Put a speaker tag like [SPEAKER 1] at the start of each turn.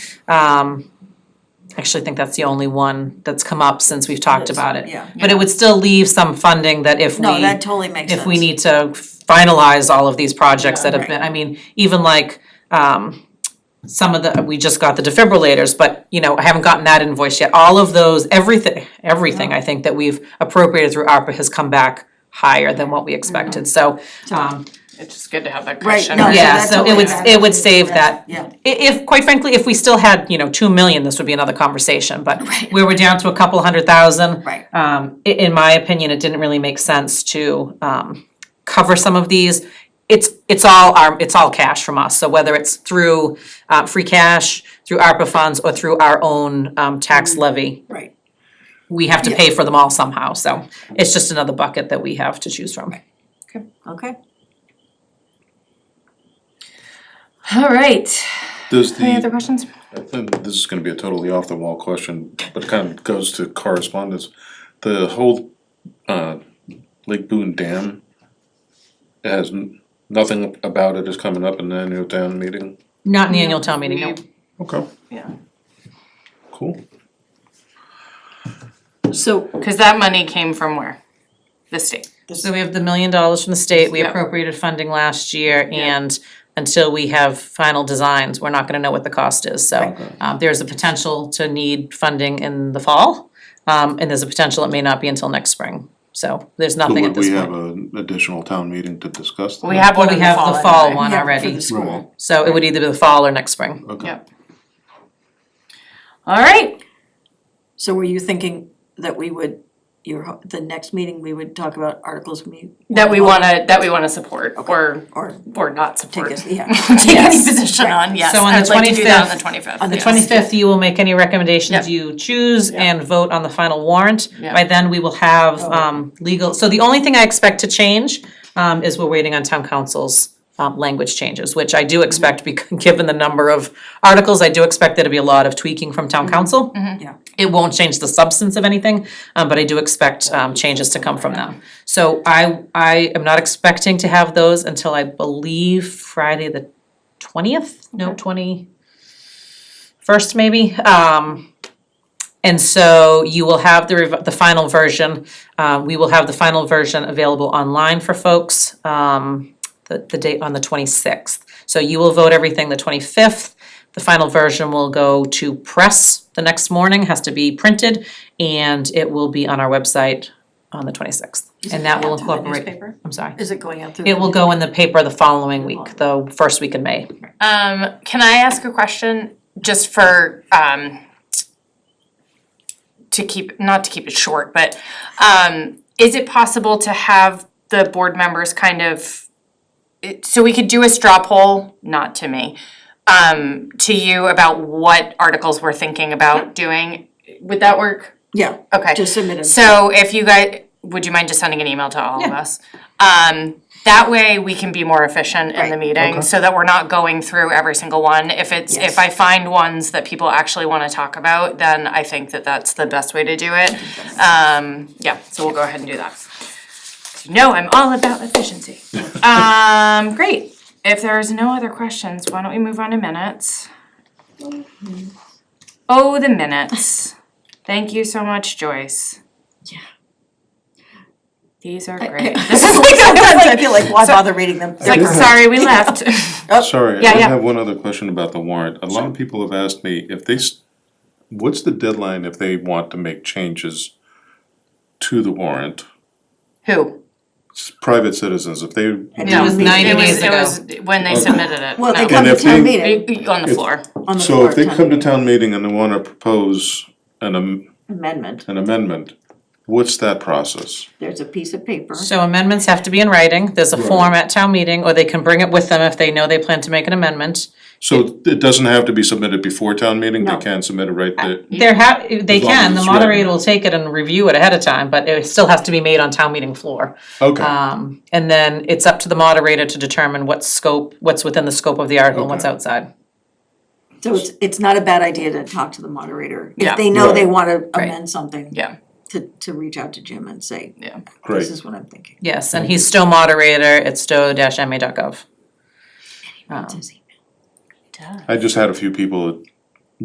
[SPEAKER 1] Um, I actually think that's the only one that's come up since we've talked about it.
[SPEAKER 2] Yeah.
[SPEAKER 1] But it would still leave some funding that if we
[SPEAKER 2] No, that totally makes sense.
[SPEAKER 1] if we need to finalize all of these projects that have been, I mean, even like, um, some of the, we just got the defibrillators, but, you know, I haven't gotten that invoice yet. All of those, everything, everything, I think, that we've appropriated through ARPA has come back higher than what we expected, so, um,
[SPEAKER 3] It's just good to have that
[SPEAKER 2] Right,
[SPEAKER 3] question.
[SPEAKER 2] no, so
[SPEAKER 1] yeah,
[SPEAKER 2] that's
[SPEAKER 1] so it
[SPEAKER 2] totally
[SPEAKER 1] would,
[SPEAKER 2] right.
[SPEAKER 1] it would save that.
[SPEAKER 2] Yeah.
[SPEAKER 1] I- If, quite frankly, if we still had, you know, two million, this would be another conversation, but we were down to a couple hundred thousand.
[SPEAKER 2] Right.
[SPEAKER 1] Um, i- in my opinion, it didn't really make sense to, um, cover some of these. It's, it's all our, it's all cash from us, so whether it's through, uh, free cash, through ARPA funds, or through our own, um, tax
[SPEAKER 2] Mm-hmm.
[SPEAKER 1] levy,
[SPEAKER 2] Right,
[SPEAKER 1] we have to pay for them all somehow, so it's just another bucket that we have to choose from.
[SPEAKER 2] okay.
[SPEAKER 3] All right.
[SPEAKER 4] Does the,
[SPEAKER 3] Any other
[SPEAKER 4] I
[SPEAKER 3] questions?
[SPEAKER 4] think this is gonna be a totally off the wall question, but kind of goes to correspondence. The whole uh Lake Boone Dam has n- nothing about it is coming up in the annual town meeting.
[SPEAKER 1] Not in the annual town meeting, no.
[SPEAKER 4] Okay.
[SPEAKER 3] Yeah.
[SPEAKER 4] Cool.
[SPEAKER 2] So.
[SPEAKER 3] Because that money came from where? The state.
[SPEAKER 1] So we have the million dollars from the state, we
[SPEAKER 3] Yep.
[SPEAKER 1] appropriated funding last year, and until we have final designs, we're not gonna know what the cost is, so. Um, there's a potential to need funding in the fall, um, and there's a potential it may not be until next spring, so there's nothing at
[SPEAKER 4] Would
[SPEAKER 1] this
[SPEAKER 4] we
[SPEAKER 1] point.
[SPEAKER 4] have an additional town meeting to discuss?
[SPEAKER 3] We
[SPEAKER 4] that?
[SPEAKER 3] have one
[SPEAKER 1] Well, we
[SPEAKER 3] in the
[SPEAKER 1] have
[SPEAKER 3] fall.
[SPEAKER 1] the fall
[SPEAKER 3] anyway.
[SPEAKER 1] one
[SPEAKER 2] For
[SPEAKER 1] already,
[SPEAKER 2] the school.
[SPEAKER 1] so it would either be the fall or next spring.
[SPEAKER 4] Okay.
[SPEAKER 3] Yep. All right.
[SPEAKER 2] So were you thinking that we would, your, ho- the next meeting, we would talk about articles we.
[SPEAKER 3] That we wanna, that we wanna support or,
[SPEAKER 2] Or
[SPEAKER 3] or not
[SPEAKER 2] take
[SPEAKER 3] support.
[SPEAKER 2] it, yeah.
[SPEAKER 3] Take any
[SPEAKER 2] Yes.
[SPEAKER 3] position on, yes.
[SPEAKER 1] So on the
[SPEAKER 3] I'd like to do that
[SPEAKER 1] 25th
[SPEAKER 3] On the twenty-fifth.
[SPEAKER 2] on the
[SPEAKER 1] The twenty-fifth, you will make any recommendations
[SPEAKER 3] Yep.
[SPEAKER 1] you choose
[SPEAKER 3] Yep.
[SPEAKER 1] and vote on the final warrant.
[SPEAKER 3] Yep. Oh,
[SPEAKER 1] By then, we will have um legal, so the only thing I expect to change um is we're waiting on town council's um language changes, which I
[SPEAKER 3] Mm-hmm.
[SPEAKER 1] do expect, bec- given the number of articles, I do expect there to be a lot of tweaking from
[SPEAKER 3] Mm-hmm.
[SPEAKER 1] town council.
[SPEAKER 2] Yeah.
[SPEAKER 1] It won't change the substance of anything, um, but I do expect um changes to come from them. So I I am not expecting to have those until I believe Friday the twentieth, no, twenty first maybe, um. And so you will have the rev- the final version, uh, we will have the final version available online for folks, um, the the date on the twenty-sixth. So you will vote everything the twenty-fifth, the final version will go to press the next morning, has to be printed, and it will be on our website on the twenty-sixth. And that will incorporate, I'm sorry,
[SPEAKER 2] Is it going out through?
[SPEAKER 1] it will go in the paper the following week, the first week in May.
[SPEAKER 3] Um, can I ask a question just for, um, to keep, not to keep it short, but, um, is it possible to have the board members kind of, it- so we could do a straw poll, not to me, um, to you about what articles we're thinking about doing? Would that work?
[SPEAKER 2] Yeah,
[SPEAKER 3] Okay.
[SPEAKER 2] just submit it.
[SPEAKER 3] So if you guys, would you mind just sending an email to all of us? Um, that way we can be more efficient in the
[SPEAKER 2] Right.
[SPEAKER 3] meeting, so that we're not going through every single one. If it's,
[SPEAKER 2] Yes.
[SPEAKER 3] if I find ones that people actually wanna talk about, then I think that that's the best way to do it. Um, yeah, so we'll go ahead and do that. You know, I'm all about efficiency. Um, great. If there's no other questions, why don't we move on to minutes? Oh, the minutes. Thank you so much, Joyce. Yeah. These are great. This is like, I
[SPEAKER 2] Sometimes I feel like, why bother reading them?
[SPEAKER 3] was like, sorry, we left.
[SPEAKER 4] Sorry, I
[SPEAKER 3] Yeah, yeah.
[SPEAKER 4] have one other question about the warrant. A lot of people have asked me if they, s- what's the deadline if they want to make changes to the warrant?
[SPEAKER 3] Who?
[SPEAKER 4] It's Private citizens, if they.
[SPEAKER 1] It was
[SPEAKER 4] really-
[SPEAKER 1] 90
[SPEAKER 3] It was,
[SPEAKER 1] days
[SPEAKER 3] it
[SPEAKER 1] ago.
[SPEAKER 3] was when they submitted it.
[SPEAKER 2] Well, they
[SPEAKER 3] No.
[SPEAKER 2] come to
[SPEAKER 4] if
[SPEAKER 2] town
[SPEAKER 4] you-
[SPEAKER 2] meeting
[SPEAKER 3] Y- y- On the floor.
[SPEAKER 2] on the
[SPEAKER 4] So
[SPEAKER 2] floor
[SPEAKER 4] if they
[SPEAKER 2] town
[SPEAKER 4] come to
[SPEAKER 2] meeting.
[SPEAKER 4] town meeting and they wanna propose an am-
[SPEAKER 2] amendment,
[SPEAKER 4] an amendment, what's that process?
[SPEAKER 2] there's a piece of paper.
[SPEAKER 1] So amendments have to be in writing, there's a form at town meeting, or they can bring it with them if they know they plan to make an amendment.
[SPEAKER 4] So it doesn't have to be submitted before town meeting, they
[SPEAKER 2] No.
[SPEAKER 4] can submit it right there?
[SPEAKER 1] There ha- they can,
[SPEAKER 4] As long as
[SPEAKER 1] the
[SPEAKER 4] it's written.
[SPEAKER 1] moderator will take it and review it ahead of time, but it still has to be made on town meeting floor.
[SPEAKER 2] uh,
[SPEAKER 4] Okay,
[SPEAKER 1] Um, and then it's up to the moderator to determine what scope, what's within the scope of the article and what's
[SPEAKER 4] Okay.
[SPEAKER 1] outside.
[SPEAKER 2] So it's, it's not a bad idea to talk to the moderator.
[SPEAKER 3] Yeah.
[SPEAKER 2] If they know they
[SPEAKER 4] Right.
[SPEAKER 2] wanna amend something,
[SPEAKER 3] Yeah,
[SPEAKER 2] to, to reach out to Jim and say,
[SPEAKER 3] yeah.
[SPEAKER 4] great.
[SPEAKER 2] this is what I'm thinking.
[SPEAKER 1] Yes, and he's Stowe moderator at stowe-ma.gov. Um,
[SPEAKER 2] Does he-
[SPEAKER 4] I just had a few people that